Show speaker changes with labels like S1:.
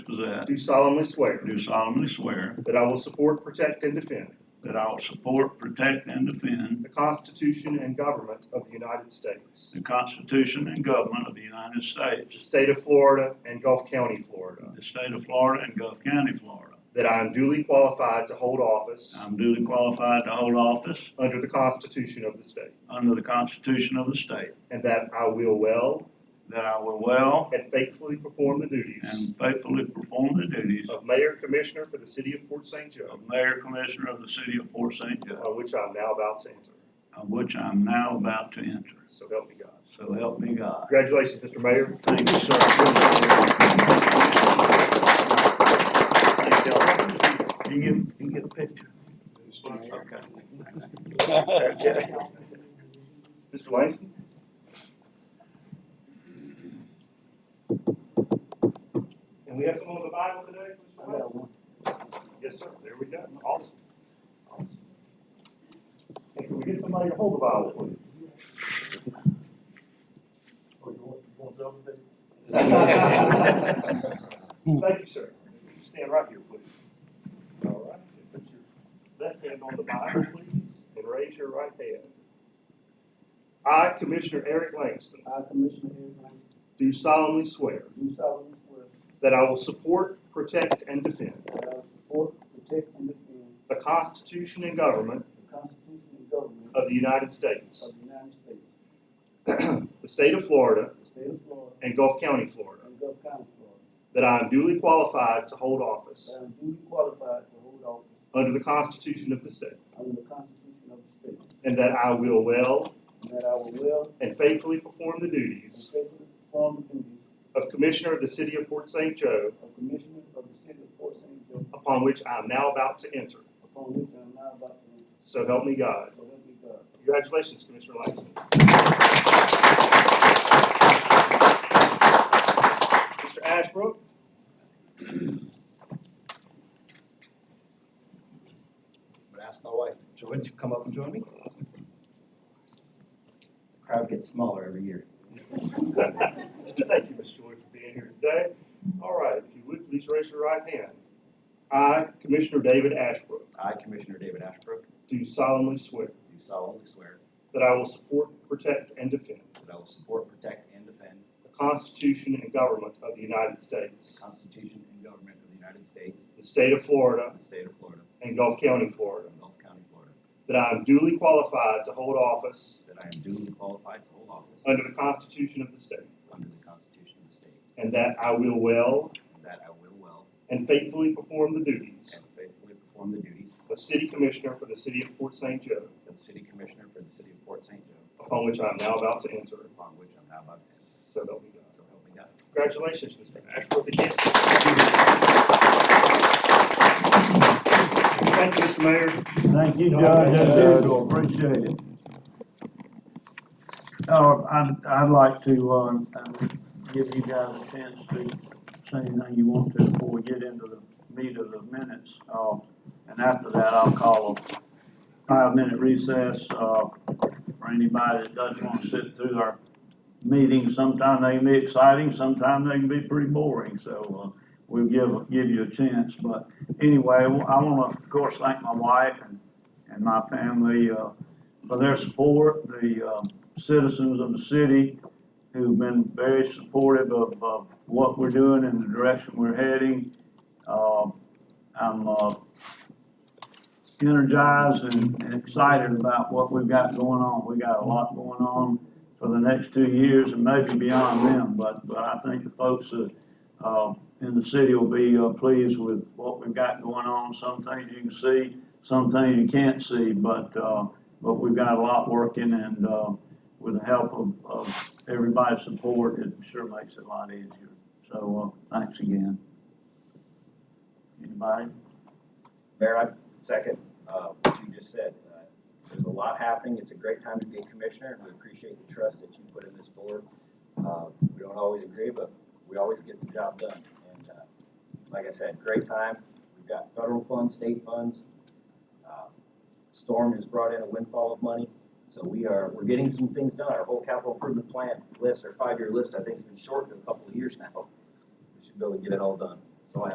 S1: Rosette,
S2: do solemnly swear
S1: do solemnly swear
S2: that I will support, protect, and defend
S1: that I will support, protect, and defend
S2: the Constitution and government of the United States,
S1: the Constitution and government of the United States,
S2: the state of Florida, and Gulf County, Florida,
S1: the state of Florida, and Gulf County, Florida.
S2: that I am duly qualified to hold office
S1: I'm duly qualified to hold office
S2: under the Constitution of the state,
S1: under the Constitution of the state,
S2: and that I will well
S1: that I will well
S2: and faithfully perform the duties
S1: and faithfully perform the duties
S2: of Mayor Commissioner for the City of Port St. Joe,
S1: of Mayor Commissioner of the City of Port St. Joe,
S2: on which I am now about to enter.
S1: of which I'm now about to enter.
S2: So help me God.
S1: So help me God.
S2: Congratulations, Mr. Mayor.
S1: Thank you, sir. Thank y'all. You get, you get a picture? Okay. Okay.
S2: Mr. Langston? And we have someone with a Bible today, Mr. Langston? Yes, sir, there we go, awesome. Awesome. And can we get somebody to hold the Bible, please? Or you want- you want to open it? Thank you, sir. Stand right here, please. All right, put your left hand on the Bible, please, and raise your right hand. I, Commissioner Eric Langston,
S3: I, Commissioner Aaron Grant,
S2: do solemnly swear
S3: do solemnly swear
S2: that I will support, protect, and defend
S3: that I will support, uh, protect, and defend
S2: the Constitution and government
S3: the Constitution and government
S2: of the United States,
S3: of the United States,
S2: the state of Florida,
S3: the state of Florida,
S2: and Gulf County, Florida,
S3: and Gulf County, Florida,
S2: that I am duly qualified to hold office
S3: that I am duly qualified to hold office
S2: under the Constitution of the state,
S3: under the Constitution of the state,
S2: and that I will well
S3: and that I will well
S2: and faithfully perform the
S3: and
S2: duties
S3: faithfully perform the duties
S2: of Commissioner of the City of Port St. Joe
S3: of Commissioner of the City of Port St. Joe,
S2: upon which I am now about to enter.
S3: upon which I am now about to enter,
S2: So help me God.
S3: so help me God.
S2: Congratulations, Commissioner Langston. Mr. Ashbrook?
S4: I'm gonna ask my wife, Joy, would you come up and join me? The Crowd gets smaller every year.
S2: Thank you, Ms. Joy, for being here today. All right, if you would, please raise your right hand. I, Commissioner David Ashbrook,
S4: I, Commissioner David Ashbrook,
S2: do solemnly swear
S4: do solemnly swear
S2: that I will support, protect, and defend
S4: that I will support, protect, and defend
S2: the Constitution and government of the United
S4: the
S2: States,
S4: Constitution and government of the United States,
S2: the state of Florida,
S4: the state of Florida,
S2: and Gulf County, Florida,
S4: and Gulf County, Florida,
S2: that I am duly qualified to hold office
S4: that I am duly qualified to hold office
S2: under the Constitution of the state,
S4: under the Constitution of the state,
S2: and that I will well
S4: and that I will well
S2: and faithfully perform the duties
S4: and faithfully perform the duties
S2: of City Commissioner for the City of Port St. Joe,
S4: of the City Commissioner for the City of Port St. Joe,
S2: upon which I am now about to enter.
S4: upon which I'm now about to enter.
S2: So help me God.
S4: So help me God.
S2: Congratulations, Mr. Ashbrook, again. Thank you, Mr. Mayor.
S1: Thank you, Judge. I do appreciate it. Uh, I'd, I'd like to, uh, give you guys a chance to say anything you want to before we get into the meat of the minutes. Uh, and after that, I'll call a five-minute recess, uh, for anybody that doesn't want to sit through our meetings. Sometimes they can be exciting, sometimes they can be pretty boring, so, uh, we'll give, give you a chance. But anyway, I want to, of course, thank my wife and, and my family uh, for their support, the um, citizens of the city who've been very supportive of, of what we're doing and the direction we're heading. Um, I'm uh, energized and and excited about what we've got going on. We got a lot going on for the next two years and maybe beyond them, but, but I think the folks that uh, in the city will be uh, pleased with what we've got going on. Some things you can see, some things you can't see, but, uh, but we've got a lot working and uh, with the help of, of everybody's support, it sure makes it a lot easier. So, uh, thanks again. Anybody?
S5: Mayor, I second uh, what you just said. Uh, There's a lot happening. It's a great time to be a commissioner, and we appreciate the trust that you put in this board. Uh, We don't always agree, but we always get the job done. And uh, like I said, great time. We've got federal funds, state funds. Uh, Storm has brought in a windfall of money, so we are, we're getting some things done. Our whole capital improvement plan list, our five-year list, I think has been shortened a couple of years now. We should be able to get it all done.